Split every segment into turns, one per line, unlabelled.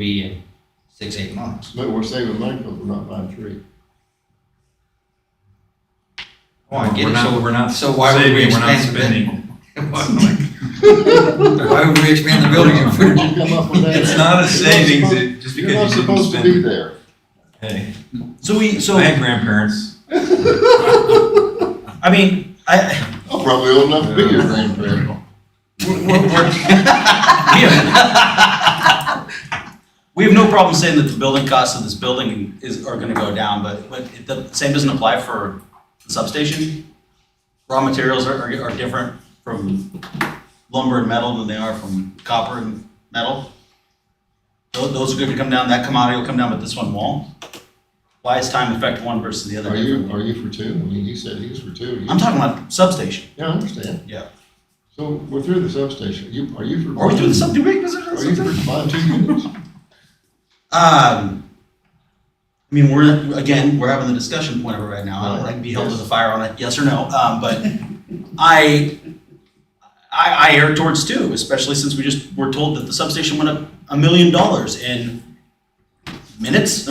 be in six, eight months.
But we're saving money because we're not buying trees.
Oh, I get
We're
it,
not-
so,
we're not
so why would we
saving, we're not
expand the
spending.
building? Why would we expand the building if
Where'd
we're,
you come up with that?
It's not a
You're
savings,
supposed-
it, just
You're not
because you didn't
supposed to be
spend.
there.
Hey,
So we, so,
I had grandparents.
I mean, I,
I'm Oh, probably old enough to be your grandparent.
we're, we're, we're- we have, we have no problem saying that the building costs of this building is, are gonna go down, but, but it- the same doesn't apply for the substation. Raw materials are, are, are different from lumber and metal than they are from copper and metal. Those, those are gonna come down, that commodity will come down, but this one won't. Why is time affect one versus the other
Are you,
differently?
are you for two? I mean, you said he was for two. You-
I'm talking about substation.
Yeah, I understand.
Yeah.
So we're through the substation. You, are you for?
Are we doing something big?
Are you for buying two units?
Um, I mean, we're, again, we're having the discussion point of it right now. I don't like to be held to the fire on it, yes or no, um, but I, I, I err towards two, especially since we just were told that the substation went up a million dollars in minutes.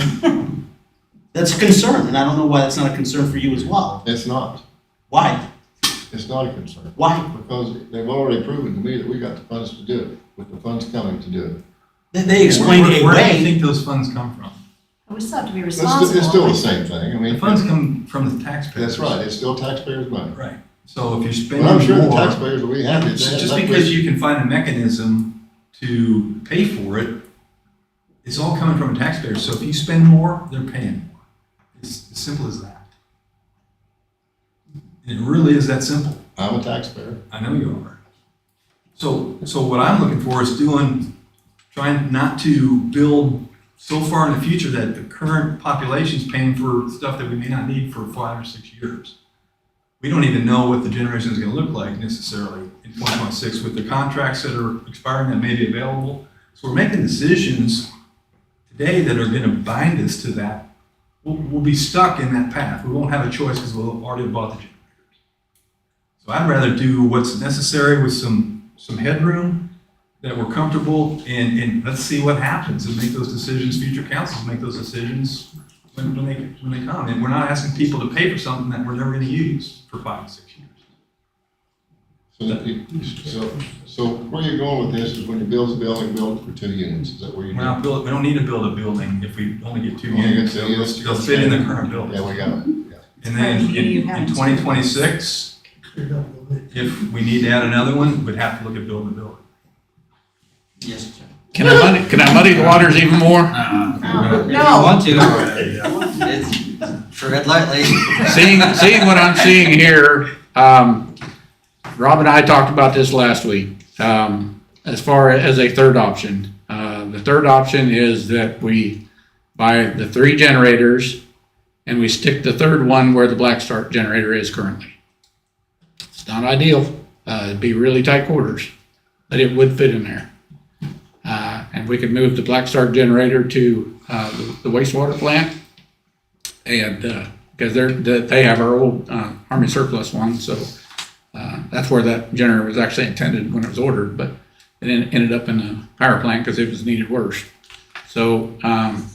That's a concern, and I don't know why that's not a concern for you as well.
It's not.
Why?
It's not a concern.
Why?
Because they've already proven to me that we got the funds to do it, with the funds coming to do it.
They, they explained
Where-
a
Where where do you
way.
think those funds come from?
We still have to be
It's sti- it's still the
responsible.
same thing. I
The
mean,
funds come from the taxpayers.
that's right. It's still taxpayers' money.
Right. So if you're spending
Well, I'm
more.
sure the taxpayers will be happy. if they
So
had
just
that
because
much-
you can find a mechanism to pay for it, it's all coming from a taxpayer. So if you spend more, they're paying more. It's as simple as that. And it really is that simple.
I'm a taxpayer.
I know you are. So, so what I'm looking for is doing, trying not to build so far in the future that the current population's paying for stuff that we may not need for five or six years. We don't even know what the generation is gonna look like necessarily in twenty twenty-six with the contracts that are expiring that may be available. So we're making decisions today that are gonna bind us to that. We'll, we'll be stuck in that path. We won't have a choice because we'll already bought the generators. So I'd rather do what's necessary with some, some headroom that we're comfortable and, and let's see what happens and make those decisions, future councils make those decisions when, when they, when they come. And we're not asking people to pay for something that we're never gonna use for five, six years.
So, that you- so, so where you're going with this is when you build a building, build it for two units, is that where you're
We're
doing?
not build, we don't need to build a building if we only get two
Only get
units.
two
They'll,
units.
they'll fit in the current building.
Yeah, we got it, yeah.
And then in, in twenty twenty-six, if we need to add another one, we'd have to look at building a building.
Yes. Jeff.
Can I muddy, can I muddy the waters even more?
Um, No.
If you want to, it's, tread lightly.
Seeing, seeing what I'm seeing here, um, Rob and I talked about this last week, um, as far as a third option. Uh, the third option is that we buy the three generators and we stick the third one where the Black Start generator is currently. It's not ideal, uh, it'd be really tight quarters, but it would fit in there. Uh, and we could move the Black Start generator to, uh, the- the wastewater plant and uh because they're the, they have our old uh, army surplus one so uh, that's where that generator was actually intended when it was ordered but it en- ended up in the power plant because it was needed worse so um,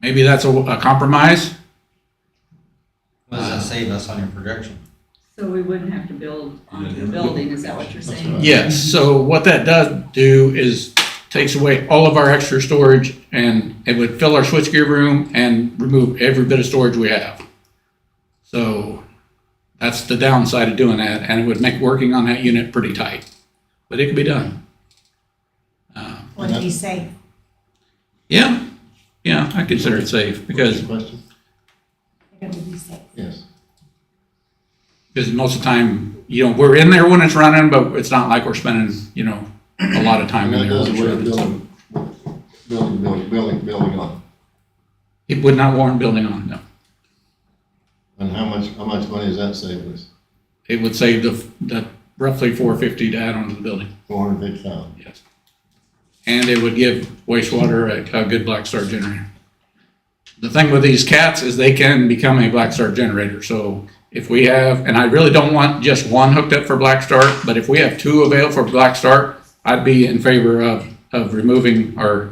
maybe that's a, a compromise
What does that save us on your projection?
So we wouldn't have to build onto a building, is that what you're
That's
saying?
right.
yes so what that does do is takes away all of our extra storage and it would fill our switchgear room and remove every bit of storage we have so That's the downside of doing that, and it would make working on that unit pretty tight, but it could be done. Uh,
Would it be safe?
Yeah, yeah, I consider it safe because,
Question?
It would be safe.
Yes.
because most of the time, you know, we're in there when it's running, but it's not like we're spending, you know, a lot of time
And
in
that
there.
does
when it's
away with
running.
building, building, building, building, building on.
It would not warrant building on, no.
And how much, how much money is that saving us?
It would save the, the roughly four fifty to add on to the building,
Four hundred fifty thousand.
yes. And it would give wastewater a, a good black star generator. the thing with these cats is they can become a black start generator. So if we have, and I really don't want just one hooked up for black start, but if we have two available for black start, I'd be in favor of of removing our